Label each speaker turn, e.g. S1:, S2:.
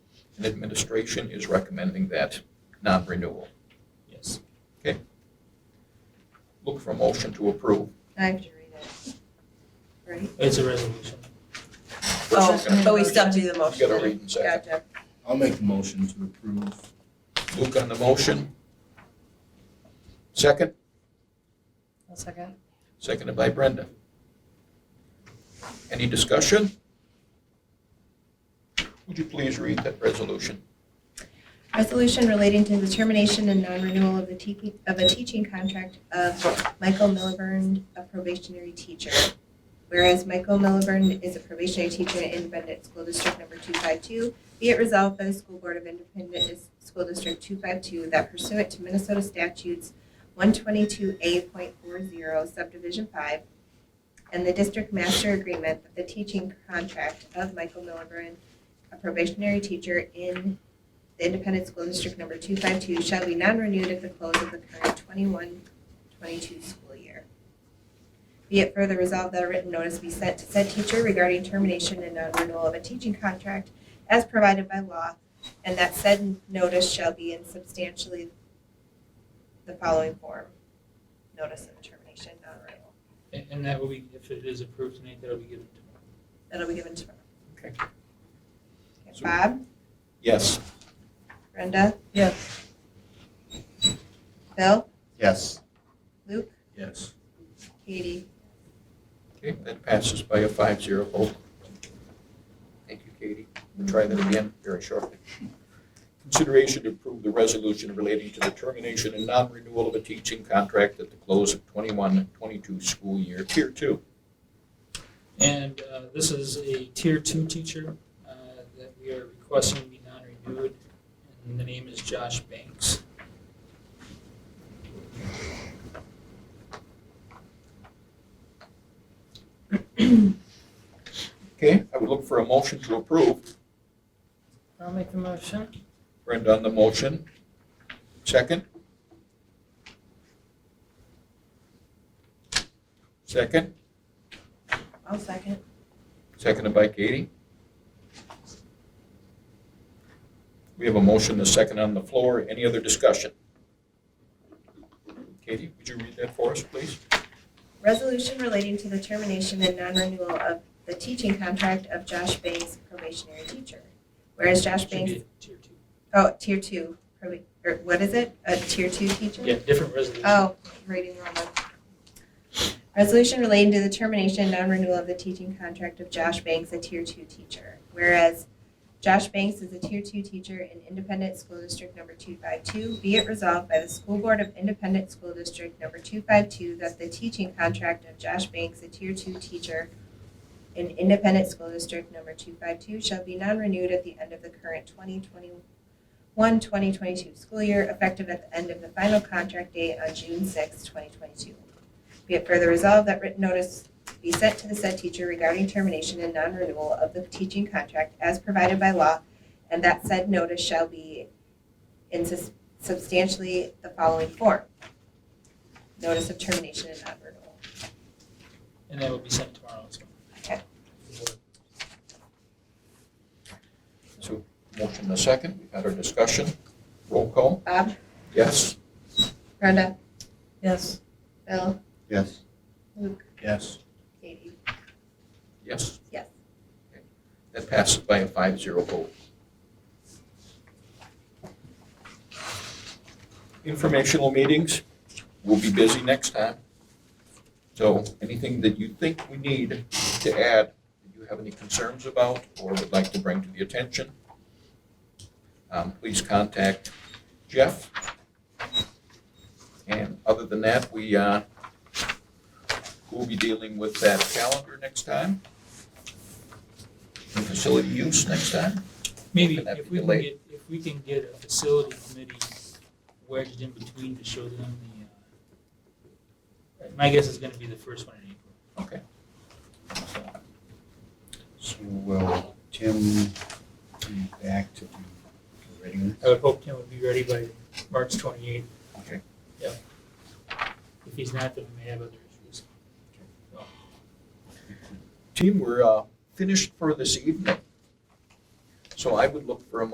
S1: and administration is recommending that non-renewal.
S2: Yes.
S1: Look for a motion to approve.
S3: I have to read it. Right?
S2: It's a resolution.
S1: First,
S3: Oh,
S1: we're gonna-
S3: but we still have to do the
S1: You
S3: motion.
S1: gotta read and second.
S3: Gotcha.
S4: I'll make the motion to approve.
S1: Luke on the motion. Second,
S3: One second.
S1: seconded by Brenda. Any discussion? Would you please read that resolution?
S3: Resolution relating to the termination and non-renewal of the TP, of a teaching contract of Michael Milliburn, a probationary teacher. Whereas Michael Milliburn is a probationary teacher in Independent School District Number 252, be it resolved by the School Board of Independent Dis- School District 252 that pursuant to Minnesota statutes 122A.40 subdivision 5, and the district master agreement that the teaching contract of Michael Milliburn, a probationary teacher in the Independent School District Number 252 shall be non-renewed at the close of the current 21-22 school year. Be it further resolved that a written notice be sent to said teacher regarding termination and non-renewal of a teaching contract as provided by law, and that said notice shall be in substantially the following form. Notice of termination, non-renewal.
S2: And, and that will be, if it is approved tonight, that'll be given to
S3: That'll be given tomorrow.
S1: Okay.
S3: Okay, Bob,
S1: Yes.
S3: Brenda,
S5: Yes.
S3: Bill,
S4: Yes.
S3: Luke,
S4: Yes.
S3: Katie.
S1: Okay, that passes by a five-zero vote. Thank you, Katie. We'll try that again very shortly. Consideration to approve the resolution relating to the termination and non-renewal of a teaching contract at the close of 21-22 school year, tier two.
S2: And uh, this is a tier two teacher uh, that we are requesting be non-renewed. And the name is Josh Banks.
S1: Okay, I would look for a motion to approve.
S5: I'll make the motion.
S1: Brenda on the motion. Second? Second,
S3: I'll second.
S1: seconded by Katie. We have a motion, a second on the floor. Any other discussion? Katie, would you read that for us, please?
S3: Resolution relating to the termination and non-renewal of the teaching contract of Josh Banks probationary teacher. Whereas Josh
S2: Should be
S3: Banks,
S2: a Tier two.
S3: oh, tier two, proba- or what is it? A tier two teacher?
S2: Yeah, different resolution.
S3: Oh, reading wrong one. Resolution relating to the termination and non-renewal of the teaching contract of Josh Banks, a Tier Two teacher. Whereas Josh Banks is a Tier Two teacher in Independent School District Number Two Five Two, be it resolved by the School Board of Independent School District Number Two Five Two that the teaching contract of Josh Banks, a Tier Two teacher in Independent School District Number Two Five Two shall be non-renewed at the end of the current twenty twenty 1, 2022 school year, effective at the end of the final contract date on June 6, 2022. Be it further resolved that written notice be sent to the said teacher regarding termination and non-renewal of the teaching contract as provided by law, and that said notice shall be in sus- substantially the following form. Notice of termination and non-renewal.
S2: And that will be sent tomorrow as well.
S3: Okay.
S1: So motion, a second. We've had our discussion. Roll call.
S3: Bob,
S1: Yes?
S3: Brenda,
S5: Yes.
S3: Bill,
S4: Yes.
S3: Luke,
S4: Yes.
S3: Katie.
S1: Yes?
S3: Yes.
S1: Okay. That passes by a five-zero vote. Informational meetings, we'll be busy next time. So anything that you think we need to add, that you have any concerns about or would like to bring to the attention, um, please contact Jeff. And other than that, we, uh, we'll be dealing with that calendar next time and facility use next time.
S2: Maybe
S1: Would that
S2: if
S1: be
S2: we can
S1: delayed?
S2: get, if we can get a facility committee wedged in between to show them the, uh, my guess is gonna be the first one in April.
S1: Okay.
S4: So will Tim be back to do the regular?
S2: I would hope Tim would be ready by March twenty-eighth.
S1: Okay.
S2: Yep. If he's not, then we may have other issues.
S1: Team, we're uh, finished for this evening. So I would look for a